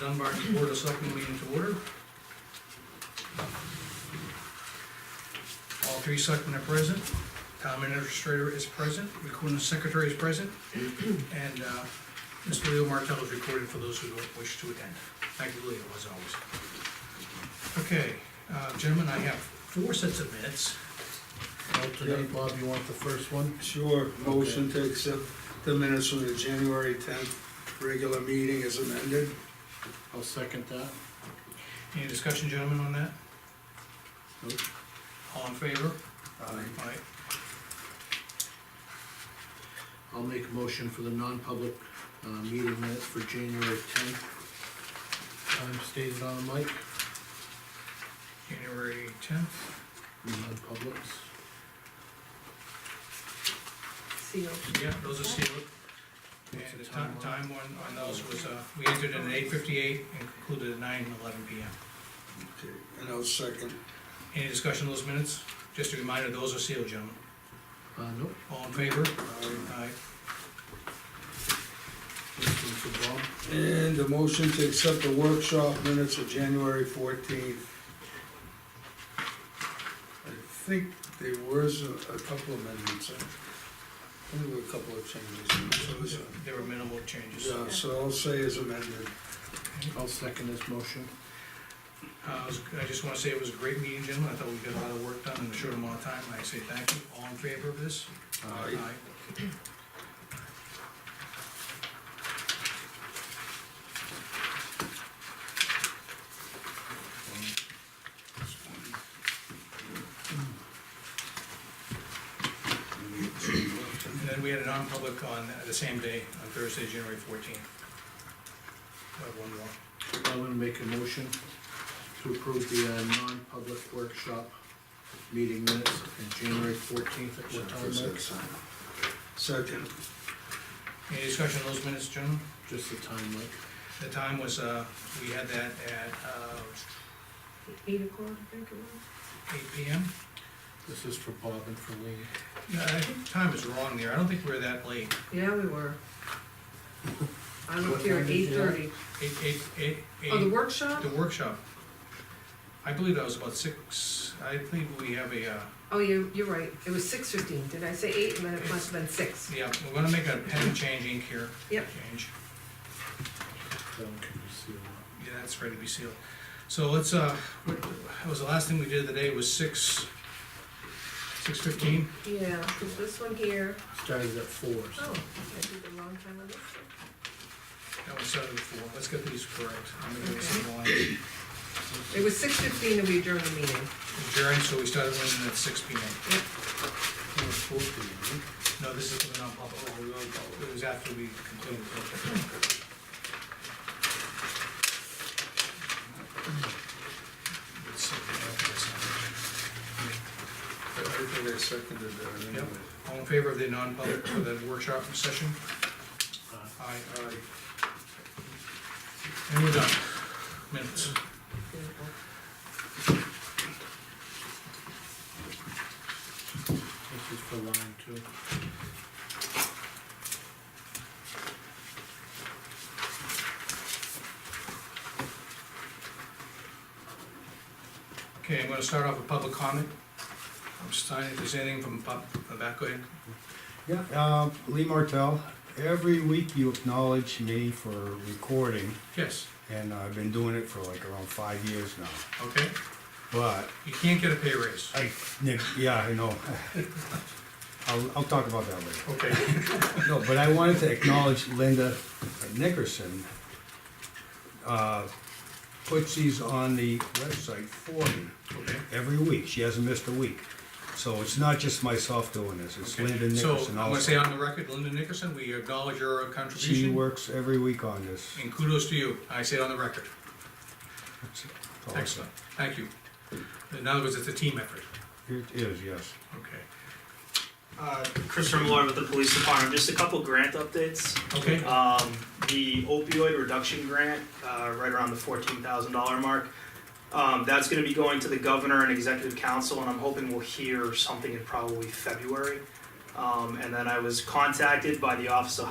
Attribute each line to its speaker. Speaker 1: Dunbarton Board of Selectmen meeting to order. All three selectmen are present, town administrator is present, recording secretary is present, and uh, Mr. Leo Martell is recorded for those who don't wish to attend. Thank you, Leo, as always. Okay, uh, gentlemen, I have four sets of minutes.
Speaker 2: Alternate, Bob, you want the first one?
Speaker 3: Sure, motion to accept the minutes from the January tenth regular meeting as amended.
Speaker 2: I'll second that.
Speaker 1: Any discussion, gentlemen, on that?
Speaker 2: Nope.
Speaker 1: All in favor?
Speaker 3: Aye.
Speaker 1: Aye.
Speaker 2: I'll make a motion for the non-public, uh, meeting minutes for January tenth. Time stated on the mic,
Speaker 1: January tenth,
Speaker 2: non-publics.
Speaker 4: Seal.
Speaker 1: yeah, those are sealed.
Speaker 2: What's
Speaker 1: And the
Speaker 2: the
Speaker 1: time, time
Speaker 2: timeline?
Speaker 1: one on those was, uh, we entered at eight fifty-eight and concluded at nine eleven P M.
Speaker 3: Okay, And I'll second.
Speaker 1: Any discussion on those minutes? Just a reminder, those are sealed, gentlemen.
Speaker 2: Uh, nope,
Speaker 1: All in favor?
Speaker 3: Aye.
Speaker 1: Aye.
Speaker 2: this one for Bob.
Speaker 3: And a motion to accept the workshop minutes of January fourteenth. I think there was a a couple amendments, uh, I think there were a couple of changes. in it, so it was, uh,
Speaker 1: There were minimal changes.
Speaker 3: Yeah, so I'll say as amended.
Speaker 2: I'll second this motion.
Speaker 1: Uh, it was- I just wanna say it was a great meeting, gentlemen. I thought we got a lot of work done in a short amount of time. I say thank you. All in favor of this?
Speaker 3: Aye.
Speaker 1: And then we had a non-public on the same day, on Thursday, January fourteenth. one more.
Speaker 2: I'm gonna make a motion to approve the, uh, non-public workshop meeting minutes in January fourteenth at what time, Mike?
Speaker 3: Second.
Speaker 1: Any discussion on those minutes, gentlemen?
Speaker 2: Just the time, Mike.
Speaker 1: The time was, uh, we had that at, uh,
Speaker 4: Eight o'clock, I think it was.
Speaker 1: eight P M.
Speaker 2: This is for Bob and for Lean.
Speaker 1: Yeah, I think time is wrong there. I don't think we we're that late.
Speaker 4: Yeah, we were. I
Speaker 2: What
Speaker 4: looked here
Speaker 2: time
Speaker 4: at
Speaker 2: did
Speaker 4: eight
Speaker 2: you have?
Speaker 4: thirty.
Speaker 1: Eight, eight, eight, eight.
Speaker 4: Oh, the workshop?
Speaker 1: The workshop. I believe that was about six, I think we have a, uh,
Speaker 4: Oh, you, you're right. It was six fifteen. Did I say eight? And then it must have been six.
Speaker 1: yeah, we're gonna make a pen change ink here.
Speaker 4: Yep.
Speaker 1: Change.
Speaker 2: That one can be sealed up.
Speaker 1: Yeah, that's ready to be sealed. So let's, uh, what, that was the last thing we did today was six, six fifteen?
Speaker 4: Yeah, this one here.
Speaker 2: Started at four, so.
Speaker 4: Oh, I did the wrong time on this one.
Speaker 1: That was seven before. Let's get these correct. I'm gonna go some line.
Speaker 4: It was six fifteen and we adjourned the meeting.
Speaker 1: Adjourned, so we started winning at six P M.
Speaker 4: Yep.
Speaker 2: Oh, it's 14, right?
Speaker 1: No, this is the non-public. It was after we completed. the- Let's see, we have this.
Speaker 3: I think I seconded that anyway.
Speaker 1: Yep. All in favor of the non-public for the workshop session?
Speaker 2: Aye.
Speaker 1: Aye.
Speaker 3: Aye.
Speaker 1: And we're done. Minutes.
Speaker 4: Beautiful.
Speaker 2: This is for line two.
Speaker 1: Okay, I'm gonna start off with public comment. I'm starting, if there's anything from pub, from the back, go ahead.
Speaker 5: Yeah, uh, Lee Martell, every week you acknowledge me for recording,
Speaker 1: Yes,
Speaker 5: and I've been doing it for like around five years now.
Speaker 1: okay?
Speaker 5: But,
Speaker 1: You can't get a pay raise.
Speaker 5: I, Nick, yeah, I know. I'll, I'll talk about that later.
Speaker 1: Okay,
Speaker 5: No, but I wanted to acknowledge Linda Nickerson, uh, puts these on the website for me
Speaker 1: okay.
Speaker 5: every week. She hasn't missed a week. So it's not just myself doing this, it's
Speaker 1: Okay.
Speaker 5: Linda Nickerson
Speaker 1: So,
Speaker 5: also.
Speaker 1: I'm gonna say on the record, Linda Nickerson, we acknowledge your
Speaker 5: She
Speaker 1: contribution,
Speaker 5: works every week on this.
Speaker 1: and kudos to you, I say it on the record.
Speaker 5: Awesome.
Speaker 1: Excellent, thank you. In other words, it's a team effort,
Speaker 5: It is, yes.
Speaker 1: okay,
Speaker 6: Uh, Chris Remillard with the police department. Just a couple grant updates.
Speaker 1: okay?
Speaker 6: Um, the opioid reduction grant, uh, right around the fourteen thousand dollar mark. Um, that's gonna be going to the governor and executive council, and I'm hoping we'll hear something in probably February. Um, and then I was contacted by the Office of